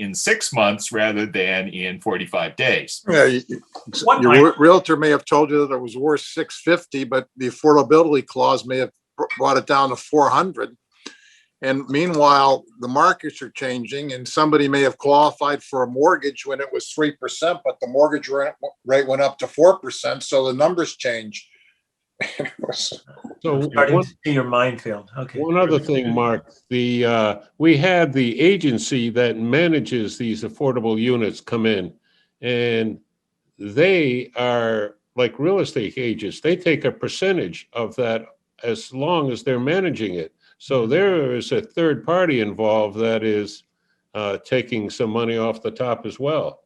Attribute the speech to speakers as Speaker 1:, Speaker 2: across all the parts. Speaker 1: in six months rather than in 45 days.
Speaker 2: Yeah, you- you-
Speaker 3: What
Speaker 2: your
Speaker 3: might-
Speaker 2: re- realtor may have told you that it was worth six fifty, but the affordability clause may have br- brought it down to four hundred. And meanwhile, the markets are changing and somebody may have qualified for a mortgage when it was three percent, but the mortgage ra- rate went up to four percent, so the numbers change.
Speaker 4: So
Speaker 3: Starting to
Speaker 4: one,
Speaker 3: see your minefield. Okay.
Speaker 4: one other thing, Mark, the, uh, we had the agency that manages these affordable units come in. And they are like real estate agents. They take a percentage of that as long as they're managing it. So
Speaker 3: Mm-hmm.
Speaker 4: there is a third party involved that is, uh, taking some money off the top as well.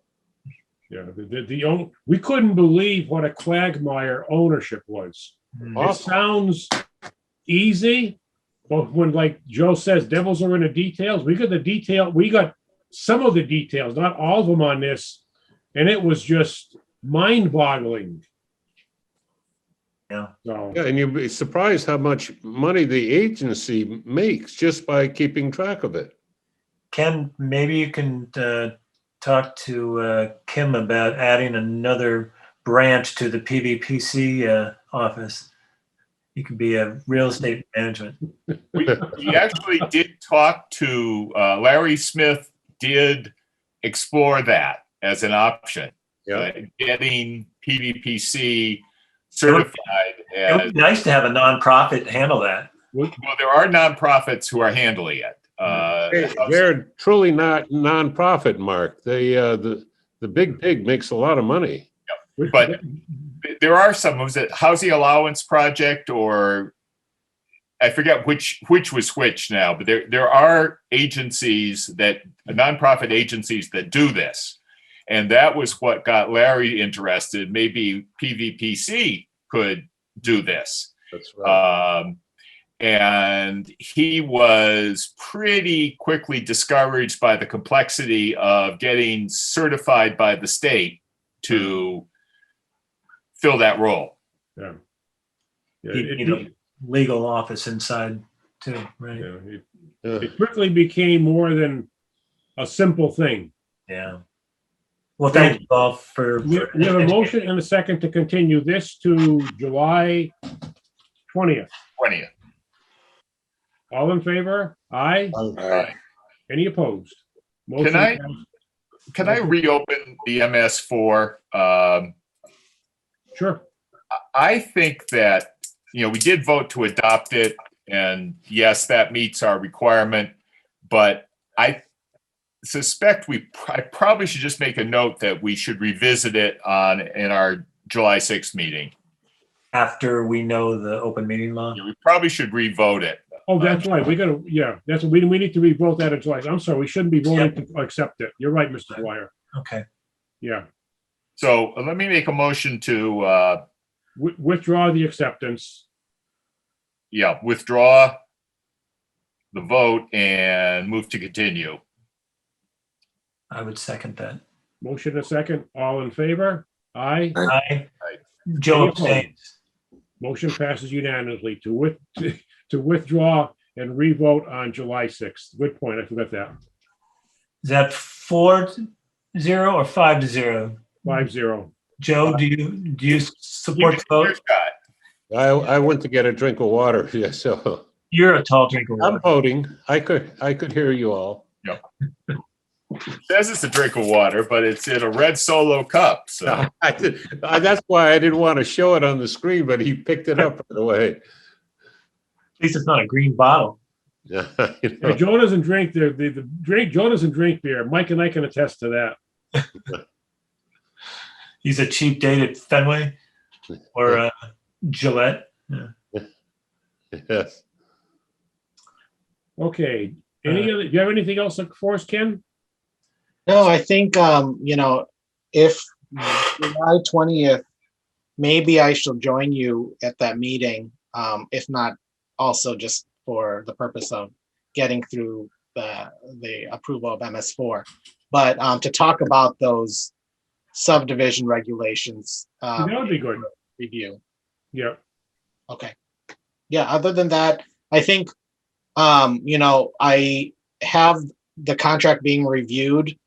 Speaker 5: Yeah, the, the, the own, we couldn't believe what a quagmire ownership was.
Speaker 3: Mm.
Speaker 5: It sounds easy, but when like Joe says, devils are in the details, we got the detail, we got some of the details, not all of them on this. And it was just mind boggling.
Speaker 3: Yeah.
Speaker 5: So,
Speaker 4: Yeah, and you'd be surprised how much money the agency makes just by keeping track of it.
Speaker 3: Ken, maybe you can uh, talk to uh, Kim about adding another branch to the PVPC uh, office. You could be a real estate management.
Speaker 1: We, we actually did talk to uh, Larry Smith, did explore that as an option.
Speaker 4: Yeah.
Speaker 1: uh, Getting PVPC certified
Speaker 3: It
Speaker 1: as
Speaker 3: would be nice to have a nonprofit handle that.
Speaker 1: Well, there are nonprofits who are handling it. Uh,
Speaker 4: Hey, They're truly not nonprofit, Mark. They, uh, the, the big pig makes a lot of money.
Speaker 1: But- there are some. Was it Housing Allowance Project or I forget which which was which now? But there there are agencies that nonprofit agencies that do this, and that was what got Larry interested. Maybe PVPC could do this.
Speaker 4: That's
Speaker 1: Um, and he was pretty quickly discouraged by the complexity of getting certified by the state to fill that role.
Speaker 5: yeah,
Speaker 3: You
Speaker 5: it-
Speaker 3: need a legal office inside too, right?
Speaker 5: yeah, it-
Speaker 4: Uh,
Speaker 5: It quickly became more than a simple thing.
Speaker 3: Yeah. Well, thank you all for.
Speaker 5: We we have a motion and a second to continue this to July 20th.
Speaker 1: 20th.
Speaker 5: All in favor? Aye. Any opposed? Motion
Speaker 1: Can I-
Speaker 5: passed.
Speaker 1: Can I reopen the MS4? Um,
Speaker 5: Sure.
Speaker 1: I think that, you know, we did vote to adopt it and yes, that meets our requirement. But I suspect we, pr- I probably should just make a note that we should revisit it on, in our July 6th meeting.
Speaker 3: After we know the open meeting law.
Speaker 1: You know, We probably should revote it.
Speaker 5: Oh, that's right. We gotta, yeah, that's, we, we need to revote that in July. I'm sorry, we shouldn't be voting to accept it. You're right, Mr. Dwyer.
Speaker 3: Okay.
Speaker 5: Yeah.
Speaker 1: So uh, let me make a motion to, uh,
Speaker 5: Wi- Withdraw the acceptance.
Speaker 1: yeah, withdraw the vote and move to continue.
Speaker 3: I would second that.
Speaker 5: Motion and a second. All in favor? Aye.
Speaker 3: Aye. Joe
Speaker 5: Any
Speaker 3: abstains.
Speaker 5: Motion passes unanimously to with, to withdraw and revote on July 6th. Good point. I forgot that.
Speaker 3: Is that four to zero or five to zero?
Speaker 5: Five zero.
Speaker 3: Joe, do you, do you support the
Speaker 1: Here's
Speaker 3: vote?
Speaker 1: Scott.
Speaker 4: I, I went to get a drink of water, yeah, so
Speaker 3: You're a tall drinker.
Speaker 4: I'm voting. I could, I could hear you all.
Speaker 1: Says it's a drink of water, but it's in a red solo cup, so.
Speaker 4: I did- I- That's why I didn't want to show it on the screen, but he picked it up right away.
Speaker 3: At least it's not a green bottle.
Speaker 4: Yeah, you
Speaker 5: Hey,
Speaker 4: know.
Speaker 5: Joe doesn't drink the, the, the drink, Joe doesn't drink beer. Mike and I can attest to that.
Speaker 3: He's a cheap date at Fenway or uh, Gillette.
Speaker 4: Yes.
Speaker 5: Okay. Any other, do you have anything else for us, Ken?
Speaker 6: No, I think, um, you know, if July twentieth, maybe I shall join you at that meeting. Um, if not, also just for the purpose of getting through the, the approval of MS four. But, um, to talk about those subdivision regulations, um,
Speaker 5: That would be good.
Speaker 6: review.
Speaker 5: Yeah.
Speaker 6: Okay. Yeah, other than that, I think, um, you know, I have the contract being reviewed